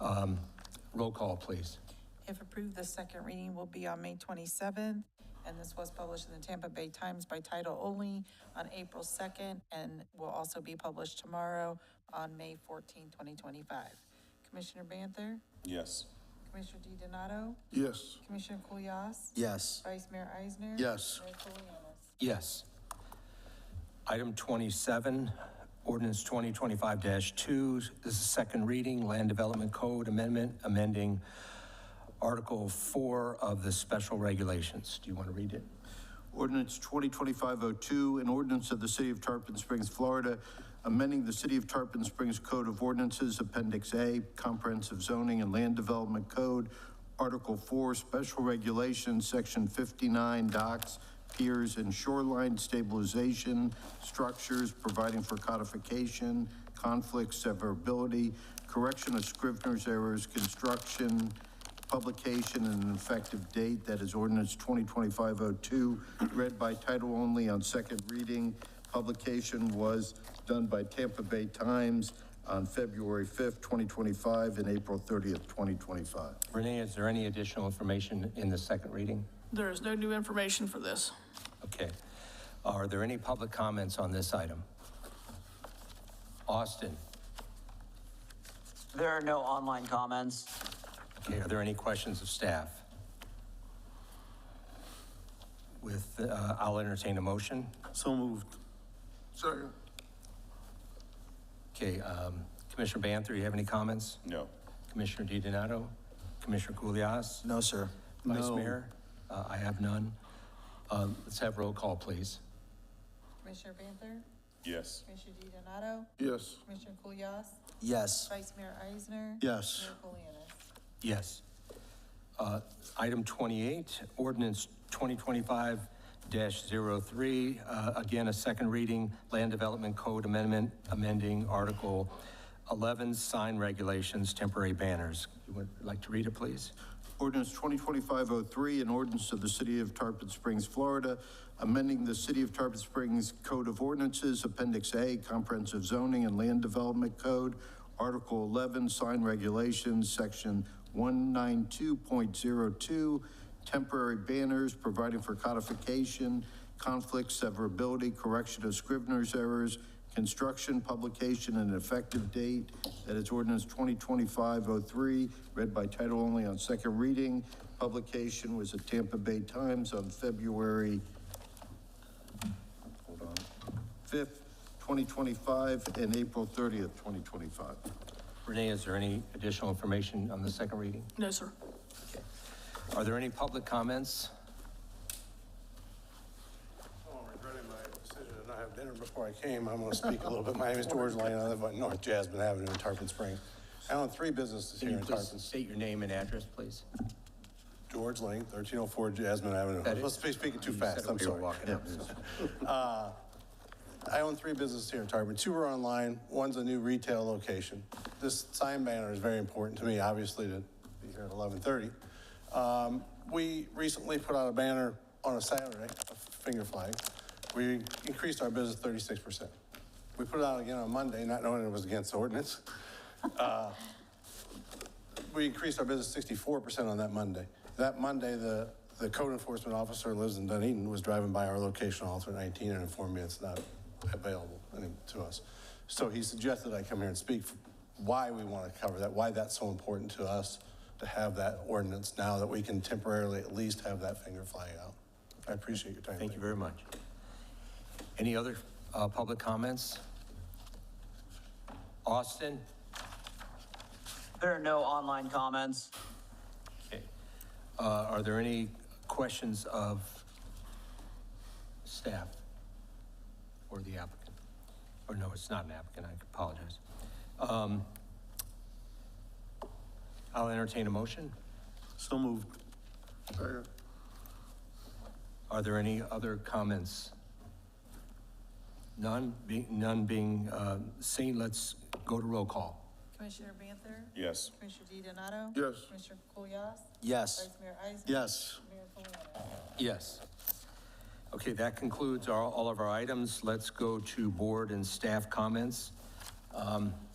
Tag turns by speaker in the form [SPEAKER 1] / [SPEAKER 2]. [SPEAKER 1] Um, Roll call, please.
[SPEAKER 2] If approved, the second reading will be on May 27th, and this was published in the Tampa Bay Times by title only on April 2nd, and will also be published tomorrow on May 14, 2025. Commissioner Banther?
[SPEAKER 3] Yes.
[SPEAKER 2] Commissioner DiDonato?
[SPEAKER 4] Yes.
[SPEAKER 2] Commissioner Kulyas?
[SPEAKER 4] Yes.
[SPEAKER 2] Vice Mayor Eisner?
[SPEAKER 4] Yes.
[SPEAKER 2] Mayor Colianis?
[SPEAKER 1] Yes. Item 27, ordinance 2025-2, this is second reading, Land Development Code Amendment, amending Article 4 of the special regulations. Do you want to read it?
[SPEAKER 4] Ordinance 2025-02, an ordinance of the City of Tarpon Springs, Florida, amending the City of Tarpon Springs Code of Ordinances, Appendix A, Comprehensive Zoning and Land Development Code, Article 4, Special Regulations, Section 59, Docks, Piers, and Shoreline Stabilization Structures, providing for codification, conflict severability, correction of scrivener's errors, construction, publication and an effective date, that is ordinance 2025-02, read by title only on second reading. Publication was done by Tampa Bay Times on February 5th, 2025, and April 30th, 2025.
[SPEAKER 1] Renee, is there any additional information in the second reading?
[SPEAKER 5] There is no new information for this.
[SPEAKER 1] Okay. Are there any public comments on this item? Austin,
[SPEAKER 6] There are no online comments.
[SPEAKER 1] okay, are there any questions of staff? With, uh, I'll entertain a motion.
[SPEAKER 3] So moved.
[SPEAKER 4] Second.
[SPEAKER 1] Okay, um, Commissioner Banther, you have any comments?
[SPEAKER 3] No.
[SPEAKER 1] Commissioner DiDonato? Commissioner Culias?
[SPEAKER 4] No, sir.
[SPEAKER 1] Vice Mayor? Uh, I have none. Uh, Let's have roll call, please.
[SPEAKER 2] Commissioner Banther?
[SPEAKER 3] Yes.
[SPEAKER 2] Commissioner DiDonato?
[SPEAKER 4] Yes.
[SPEAKER 2] Commissioner Kulyas?
[SPEAKER 4] Yes.
[SPEAKER 2] Vice Mayor Eisner?
[SPEAKER 4] Yes.
[SPEAKER 2] Mayor Colianis?
[SPEAKER 1] Yes. Uh, Item 28, ordinance 2025-03, uh, again, a second reading, Land Development Code Amendment, amending Article 11, sign regulations, temporary banners. You would like to read it, please?
[SPEAKER 4] Ordinance 2025-03, an ordinance of the City of Tarpon Springs, Florida, amending the City of Tarpon Springs Code of Ordinances, Appendix A, Comprehensive Zoning and Land Development Code, Article 11, Sign Regulations, Section 192.02, Temporary Banners, Providing for Codification, Conflict Severability, Correction of Scrivener's Errors, Construction, publication, and effective date. That is ordinance 2025-03, read by title only on second reading. Publication was at Tampa Bay Times on February, hold on, 5th, 2025, and April 30th, 2025.
[SPEAKER 1] Renee, is there any additional information on the second reading?
[SPEAKER 5] No, sir.
[SPEAKER 1] Are there any public comments?
[SPEAKER 7] Oh, I'm regretting my decision to not have dinner before I came. I'm going to speak a little bit. My name is George Lane. I live on North Jasmine Avenue in Tarpon Springs. I own three businesses
[SPEAKER 1] Can
[SPEAKER 7] here
[SPEAKER 1] you
[SPEAKER 7] in
[SPEAKER 1] please
[SPEAKER 7] Tarpon.
[SPEAKER 1] state your name and address, please?
[SPEAKER 7] George Lane, 1304 Jasmine Avenue.
[SPEAKER 1] That
[SPEAKER 7] I'm
[SPEAKER 1] is-
[SPEAKER 7] supposed to be speaking too
[SPEAKER 1] You said
[SPEAKER 7] fast.
[SPEAKER 1] it
[SPEAKER 7] I'm
[SPEAKER 1] when you were
[SPEAKER 7] sorry.
[SPEAKER 1] walking up.
[SPEAKER 7] Uh, I own three businesses here in Tarpon. Two are online, one's a new retail location. This sign banner is very important to me, obviously, to be here at 11:30. Um, We recently put out a banner on a Saturday, a finger flag. We increased our business 36%. We put it out again on Monday, not knowing it was against the ordinance. Uh, We increased our business 64% on that Monday. That Monday, the, the code enforcement officer who lives in Dunedin was driving by our location on Alter 19 and informed me it's not available any- to us. So he suggested I come here and speak f- why we want to cover that, why that's so important to us to have that ordinance now that we can temporarily at least have that finger fly out. I appreciate your time.
[SPEAKER 1] Thank you very much. Any other uh, public comments? Austin?
[SPEAKER 6] There are no online comments.
[SPEAKER 1] Okay. Uh, Are there any questions of staff or the applicant? Or no, it's not an applicant, I apologize. Um, I'll entertain a motion.
[SPEAKER 3] So moved.
[SPEAKER 1] Are there any other comments? None, be- none being uh, seen, let's go to roll call.
[SPEAKER 2] Commissioner Banther?
[SPEAKER 3] Yes.
[SPEAKER 2] Commissioner DiDonato?
[SPEAKER 4] Yes.
[SPEAKER 2] Commissioner Kulyas?
[SPEAKER 4] Yes.
[SPEAKER 2] Vice Mayor Eisner?
[SPEAKER 7] Yes.
[SPEAKER 2] Mayor Colianis?
[SPEAKER 1] Yes. Okay, that concludes our, all of our items. Let's go to board and staff comments. Um,